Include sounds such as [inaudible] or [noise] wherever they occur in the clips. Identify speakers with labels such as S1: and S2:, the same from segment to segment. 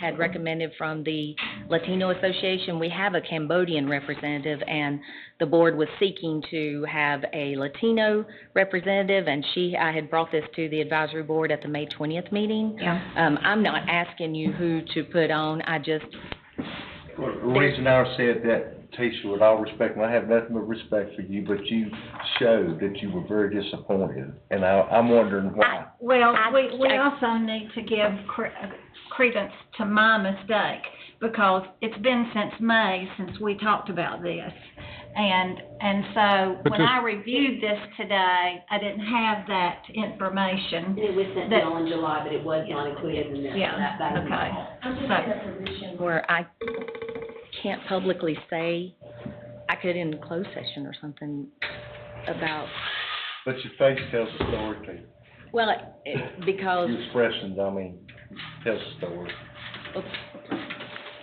S1: had recommended from the Latino Association, we have a Cambodian representative, and the board was seeking to have a Latino representative, and she, I had brought this to the advisory board at the May twentieth meeting.
S2: Yeah.
S1: Um, I'm not asking you who to put on, I just,
S3: Well, The reason I said that, Tisha, with all respect, and I have nothing but respect for you, but you showed that you were very disappointed, and I, I'm wondering why.
S2: Well,
S4: I-
S2: we, we
S4: I-
S2: also need to give cre- uh, credence to my mistake, because it's been since May since we talked about this. And, and so,
S5: But
S2: when
S5: this-
S2: I reviewed this today, I didn't have that information.
S4: It was sent
S2: That-
S4: down in July, but it was not included in there.
S2: Yeah,
S4: That- that is-
S2: okay. So,
S1: where I can't publicly say, I could in closed session or something about,
S3: But your face tells a story, too.
S1: well, it- because,
S3: Your expressions, I mean, tells a story.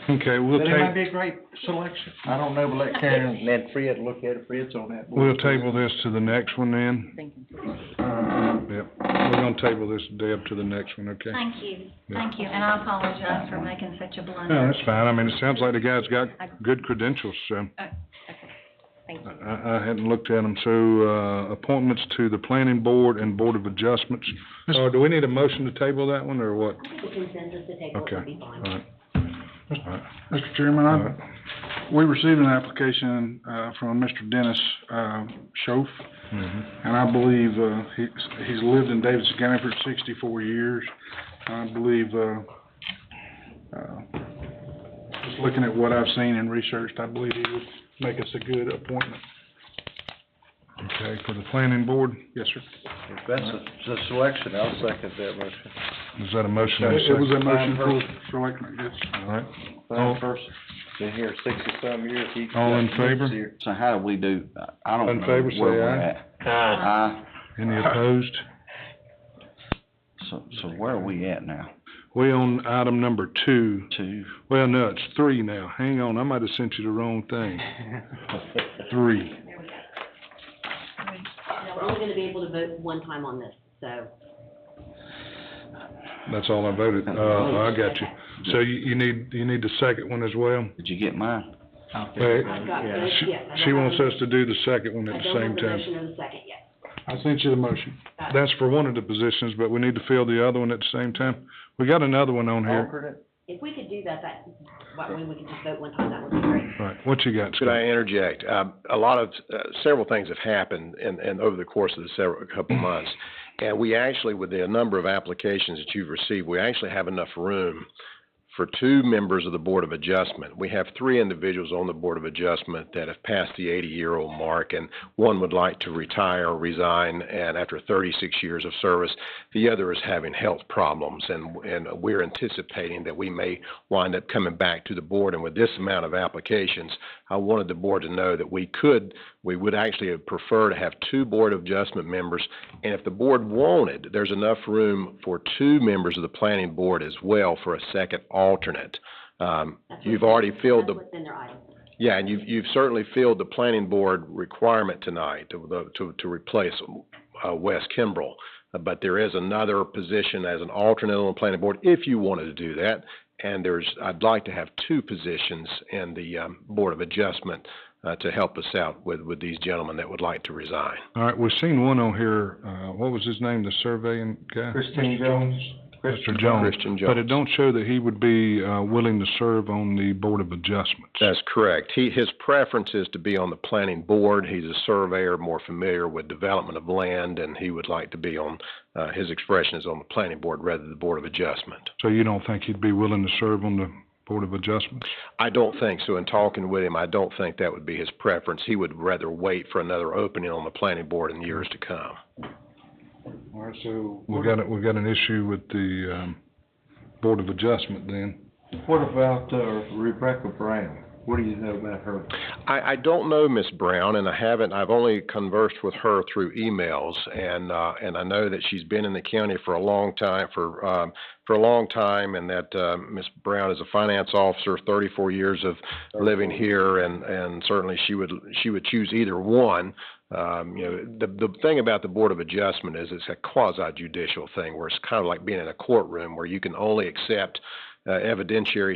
S5: Okay, we'll
S3: But it might
S5: ta-
S3: be a great selection. I don't know, but let Karen and Fred look at it, Fred's on that board.
S5: we'll table this to the next one then.
S1: thinking,
S5: Yep, we're gonna table this, Deb, to the next one, okay?
S2: thank you,
S5: Yeah.
S2: thank you, and I apologize for making such a blunder.
S5: No, that's fine. I mean, it sounds like the guy's got good credentials, so.
S1: thank you.
S5: I, I hadn't looked at them, so, uh, appointments to the planning board and board of adjustments. Uh, do we need a motion to table that one, or what?
S4: I think the consensus to take what
S5: Okay,
S4: would be fine.
S5: alright,
S6: Mr. Chairman,
S5: alright.
S6: I, we received an application, uh, from Mr. Dennis, uh, Schoaf,
S5: Mhm.
S6: and I believe, uh, he's, he's lived in Davidson County for sixty-four years. I believe, uh, uh, just looking at what I've seen and researched, I believe he would make us a good appointment.
S5: Okay, for the planning board,
S6: Yes, sir.
S3: If that's a, it's a selection, I'll second that motion.
S5: is that a motion? and a
S6: It was a
S5: second?
S6: motion for selection, yes.
S5: All right,
S3: Fine person, been here sixty-some years, he.
S5: All in favor?
S7: So how do we do, I don't know.
S5: In favor, say
S7: where we're
S5: aye.
S7: at. Aye.
S5: any opposed?
S7: So, so where are we at now?
S5: We on item number two,
S7: Two?
S5: well, no, it's three now, hang on, I might have sent you the wrong
S8: [laughs]
S5: thing. Three.
S4: Now, we're only gonna be able to vote one time on this, so.
S5: That's all I voted. Uh, I got you. So you, you need, you need the second one as well?
S7: Did you get mine?
S5: Hey,
S4: I've got both,
S5: she-
S4: yes. I
S5: She
S4: don't
S5: wants
S4: have-
S5: us to do the second one
S4: I
S5: at the
S4: don't have
S5: same
S4: the
S5: time.
S4: motion or the second yet.
S6: I sent you the motion.
S5: That's for one of the positions, but we need to fill the other one at the same time. We got another one on here.
S3: Alternate?
S4: If we could do that, that, that way we could just vote one time, that would be great.
S5: Right, what you got,
S8: Could I
S5: Scott?
S8: interject? Um, A lot of, uh, several things have happened in, in, over the course of the several, couple of months. And we actually, with the number of applications that you've received, we actually have enough room for two members of the Board of Adjustment. We have three individuals on the Board of Adjustment that have passed the eighty-year-old mark, and one would like to retire or resign, and after thirty-six years of service, the other is having health problems, and, and we're anticipating that we may wind up coming back to the board, and with this amount of applications, I wanted the board to know that we could, we would actually prefer to have two Board of Adjustment members, and if the board wanted, there's enough room for two members of the planning board as well for a second alternate. Um,
S4: That's
S8: you've
S4: what's-
S8: already filled the.
S4: That's what's in their item.
S8: Yeah, and you've, you've certainly filled the planning board requirement tonight to, the- to, to replace, uh, Wes Kimbrell. Uh, But there is another position as an alternate on the planning board, if you wanted to do that. And there's, I'd like to have two positions in the, um, Board of Adjustment, uh, to help us out with, with these gentlemen that would like to resign.
S5: All right, we've seen one on here, uh, what was his name, the surveying guy?
S3: Christine Jones?
S5: Mr. Jones.
S8: Christian
S5: But it don't show that he would be, uh, willing to serve on the Board of Adjustments.
S8: That's correct. He, his preference is to be on the planning board. He's a surveyor, more familiar with development of land, and he would like to be on, uh, his expression is on the planning board rather than the Board of Adjustment.
S5: So you don't think he'd be willing to serve on the Board of Adjustments?
S8: I don't think so. In talking with him, I don't think that would be his preference. He would rather wait for another opening on the planning board in years to come.
S6: All right, so.
S5: We got, a- we got an issue with the, um, Board of Adjustment then.
S3: What about, uh, Rebecca Brown? What do you know about her?
S8: I, I don't know Miss Brown, and I haven't. I've only conversed with her through emails, and uh, and I know that she's been in the county for a long time for um, for a long time, and that uh, Miss Brown is a finance officer, 34 years of living here, and and certainly she would she would choose either one. Um, you know, the the thing about the Board of Adjustment is it's a quasi judicial thing, where it's kind of like being in a courtroom, where you can only accept uh, evidentiary